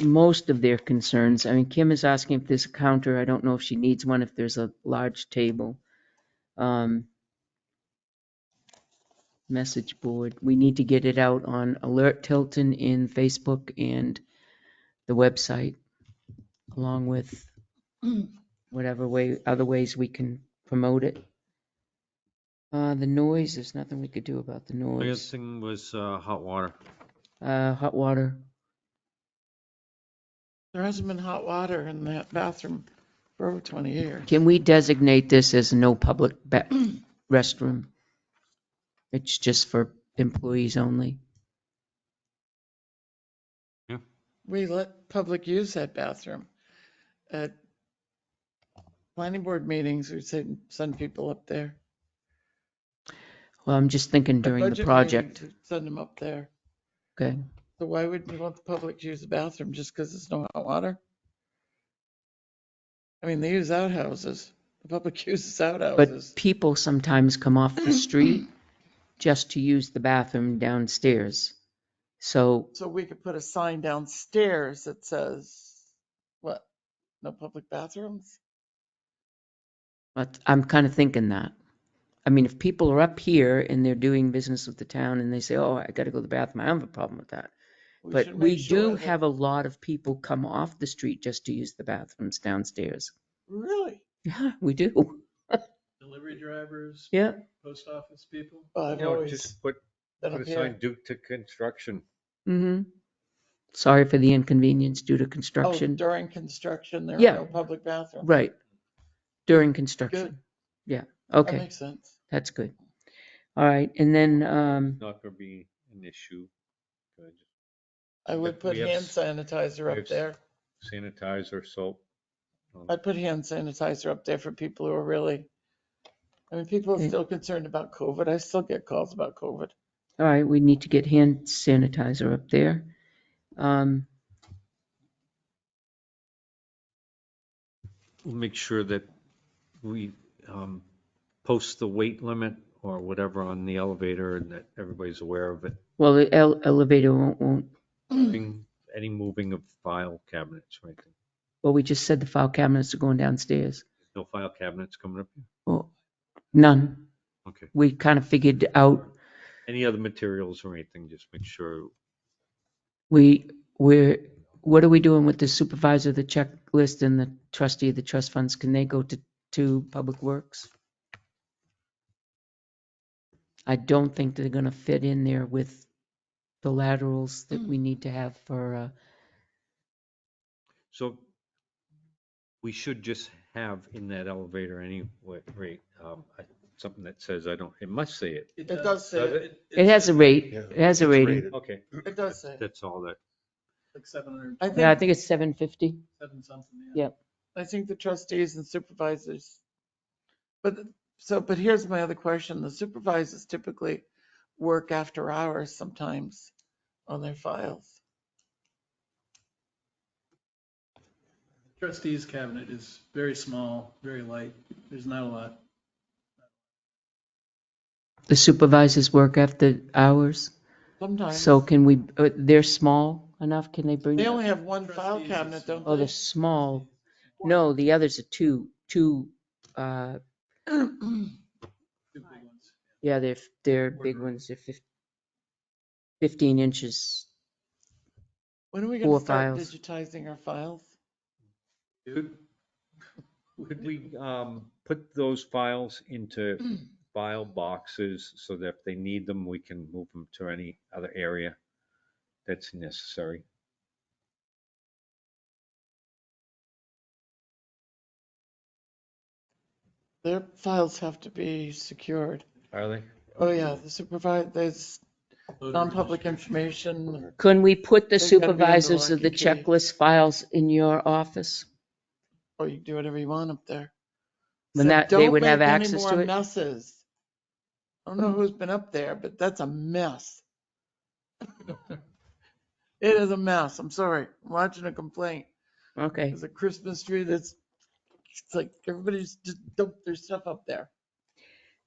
most of their concerns. I mean, Kim is asking if there's a counter. I don't know if she needs one, if there's a large table. Um, Message board. We need to get it out on Alert Tilton in Facebook and the website, along with whatever way, other ways we can promote it. Uh, the noise, there's nothing we could do about the Biggest noise. thing was uh, hot water. Uh, hot water. There hasn't been hot water in that bathroom for over 20 years. Can we designate this as no public ba- restroom? It's just for employees only. We let public use that bathroom. At planning board meetings, we send, send people up there. Well, I'm just thinking At during the budget project. meetings, we Send them up there. Okay. So why would we want the public to use the bathroom just because there's no hot water? I mean, they use outhouses. The public uses outhouses. But people sometimes come off the street just to use the bathroom downstairs. So So we could put a sign downstairs that says, what, no public bathrooms? but I'm kind of thinking that. I mean, if people are up here and they're doing business with the town and they say, oh, I got to go to the bathroom, I don't have a problem with that. But should we make sure do that- have a lot of people come off the street just to use the bathrooms downstairs. Really? Yeah, we do. delivery drivers, Yeah. post office people. Well, I've No, always just put, been put up a here. sign due to construction. hmm Sorry for the inconvenience due to Oh, construction. during construction, there Yeah. are no public bathrooms. Right. During construction. Yeah, That okay, makes sense. that's good. All right, and then, um, Not gonna be an issue. Good. I would But put we have hand s- sanitizer we up have s- there. Sanitizer, soap. um, I'd put hand sanitizer up there for people who are really, I mean, people Okay. are still concerned about COVID. I still get calls about COVID. all right, we need to get hand sanitizer up there. Um, We'll Make sure that we um, post the weight limit or whatever on the elevator and that everybody's aware of it. well, the ele- elevator won't, won't, Moving- Any moving of file cabinets or anything. well, we just said the file cabinets are going downstairs. No file cabinets coming up? Well, none. Okay. We kind of figured out, Any other materials or anything, just make sure. we, we're, what are we doing with the supervisor, of the checklist and the trustee of the trust funds? Can they go to, to Public Works? I don't think they're gonna fit in there with the laterals that we need to have for, uh, So we should just have in that elevator anyway, rate, um, I- something that says, I don't, it must say it. It does say, Does it it? it has a rate, Yeah, it has a rating. Okay, It does say. it. that's all that. Like seven hundred, I Yeah, I think, think it's seven fifty. seven something. Yeah. I think the trustees and supervisors. But, th- so, but here's my other question. The supervisors typically work after hours sometimes on their files. Trustees cabinet is very small, very light. There's not a lot. The supervisors work after hours, Sometimes. so can we, uh, they're small enough, can they bring? They only have one file Trustees is cabinet, don't Oh, they're they? small. No, the others are two, two, uh, Two big ones. Yeah, they're, f- they're big ones, they're fif- fifteen inches. When are we Four gonna start files. digitizing our files? Could could we, um, put those files into file boxes so that if they need them, we can move them to any other area that's necessary? Their files have to be secured. Are they? Oh, yeah, the supervisor, there's Voter non-public registration. information. Can we put the They've gotta be under supervisors lock of the and key. checklist files in your office? Oh, you can do whatever you want up there. When Said, that- they "Don't would have make any access more to it?" Messes. I don't know who's been up there, but that's a mess. It is a mess. I'm sorry. I'm lodging a complaint. Okay, There's a Christmas tree that's, it's like everybody's just dumped their stuff up there.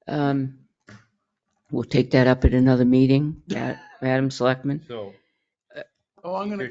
um, we'll take that up at another meeting, Ma- Madam Selectman. So. Oh, I'm gonna Your